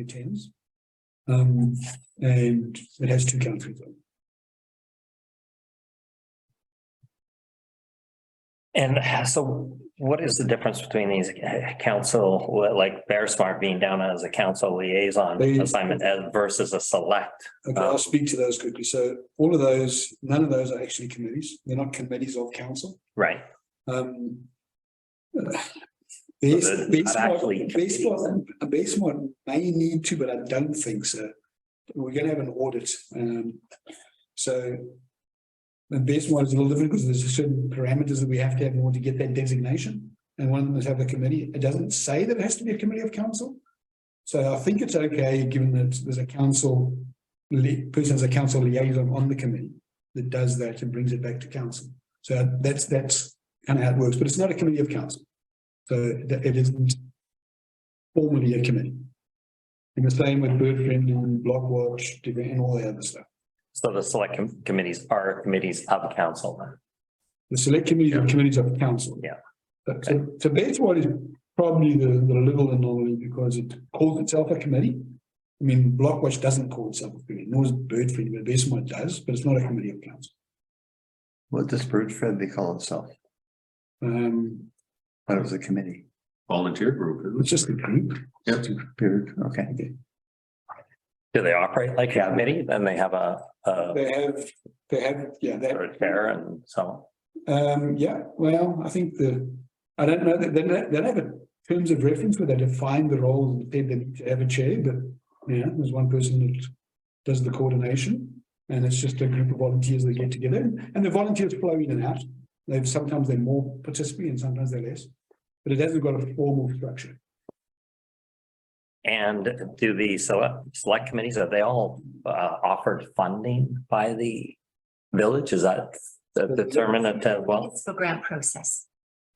attends. Um, and it has two countries. on it. And so what is the difference between these council, like Bear Smart being down as a council liaison They- assignment as- versus a select? Okay, I'll Um, speak to those quickly. So all of those, none of those are actually committees. They're not committees of council. Right, Um. uh, Base, they're not base, actually base, a base one may need to, but I don't think so. We're gonna have an audit, um, so. The base one is a little different because there's certain parameters that we have to have in order to get that designation. And one of them is have a committee. It doesn't say that it has to be a committee of council. So I think it's okay, given that there's a council, li- person as a council liaison on the committee that does that and brings it back to council. So that's, that's kind of how it works, but it's not a committee of council. So that it isn't formally a committee. And the same with bird friendly, block watch, div- and all the other stuff. so the select com- committees are committees of council then. The select committee, the committees of council. Yeah. But so, so that's what is probably the, the little anomaly because it calls itself a committee. I mean, block watch doesn't call itself a committee, nor is bird friendly, but Bessemer does, but it's not a committee of council. What does Bird Friendly call itself? Um, But it was a committee. volunteer group. isn't it? it's just a group. Yep. Bird, okay. Do they operate like a committee? Then they have a, a They have, they have, yeah, they have or a chair and so Um, yeah, well, I think the, I don't know, they, they, don't- they don't have a terms of reference where they define the roles and they need to have a chair, but yeah, there's one person that does the coordination. And it's just a group of volunteers that get together and the volunteers flow in and out. They've, sometimes they're more participating and sometimes they're less. But it hasn't got a formal structure. on. And do the select, select committees, are they all uh, offered funding by the village? Is that the determinant of, well, Municipal grant process.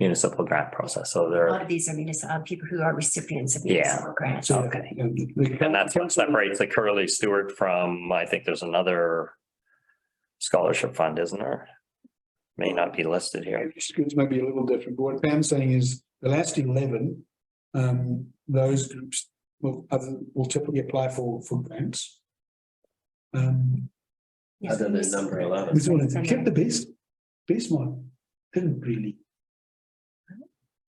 municipal grant process? So A they're. lot of these are municipal, people who are recipients of Yeah. municipal grants. So, Okay. um, the- And that's what separates the Curly Stewart from, I think there's another scholarship fund, isn't there? May not be listed here. Schools may be a little different, but what Pam's saying is the last eleven, um, those groups will, other, will typically apply for, for grants. Um, Yes, Other than municipal number grant 11. this one, process. kept the best, best one, didn't really.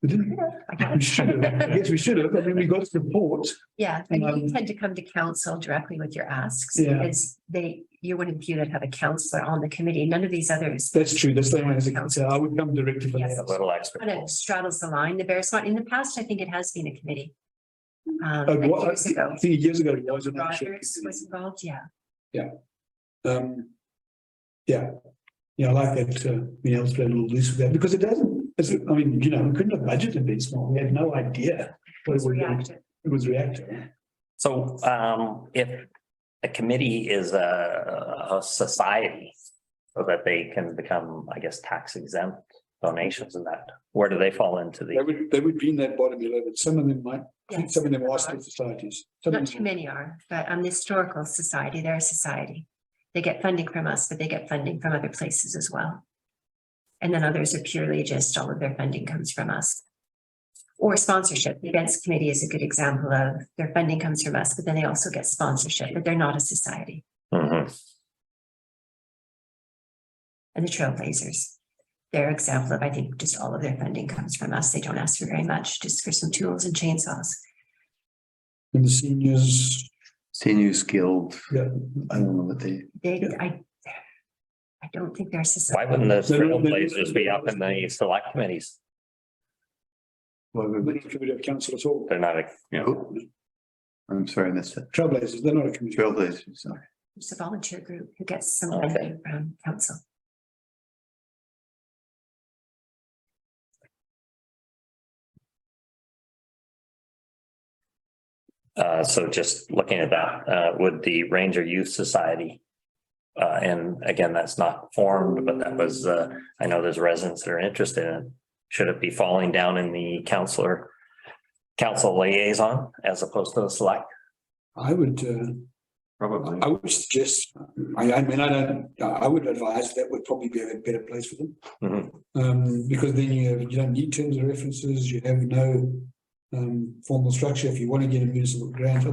We didn't, I got we should have, I it. guess we should have, I mean, we got support, Yeah, I mean, Um, you tend to come to council directly with your asks Yeah. because they, you wouldn't view that have a counselor on the committee. None of these others. that's true, that's the only one as a council, I would come directly for Yes. A that. little extra. Kind of straddles the line, the Bear Swat. In the past, I think it has been a committee. Um, But like what, uh, I years think ago. I think years ago, it was an actual Rogers was committee. involved, yeah. Um, yeah, yeah, I like that, uh, being able to play a little loose with that, because it doesn't, it's, I mean, you know, we couldn't have budgeted this small, we had no idea. what Was It was reactive, reactive. it was reactive. So um, if a committee is a, a society so that they can become, I guess, tax exempt donations and that, where do they fall into They the? would, they would be in that bottom eleven, some of them might, I think Yes. some of them are still societies. Some of Not too them- many are, but on the historical society, they're a society. They get funding from us, but they get funding from other places as well. And then others are purely just all of their funding comes from us. Or sponsorship. The events committee is a good example of their funding comes from us, but then they also get sponsorship, but they're not a society. Mhm. And the trailblazers. They're example of, I think, just all of their funding comes from us. They don't ask for very much, just for some tools and chainsaws. And the seniors, Seniors Guild. Yeah. I don't know what they, They, Yeah. I, I don't think they're a society. Why wouldn't the They're- they're- trailblazers be up in the select committees? what they're were- not a committee of council at all, They're not, a- I'm sorry, I missed it. trailblazers, they're not a committee. Trailblazers, sorry. It's a volunteer group who gets some Okay. funding from council. uh, so just looking at that, uh, would the Ranger Youth Society. Uh, and again, that's not formed, but that was, uh, I know there's residents that are interested in. it. Should it be falling down in the counselor? Council liaison as opposed to the select? I would, uh, Probably. I would suggest, I, I mean, I don't, I would advise that would probably be a better place for them. Mhm. Um, because then you, have- you don't need terms of references, you have no, um, formal structure. If you want to get a municipal grant,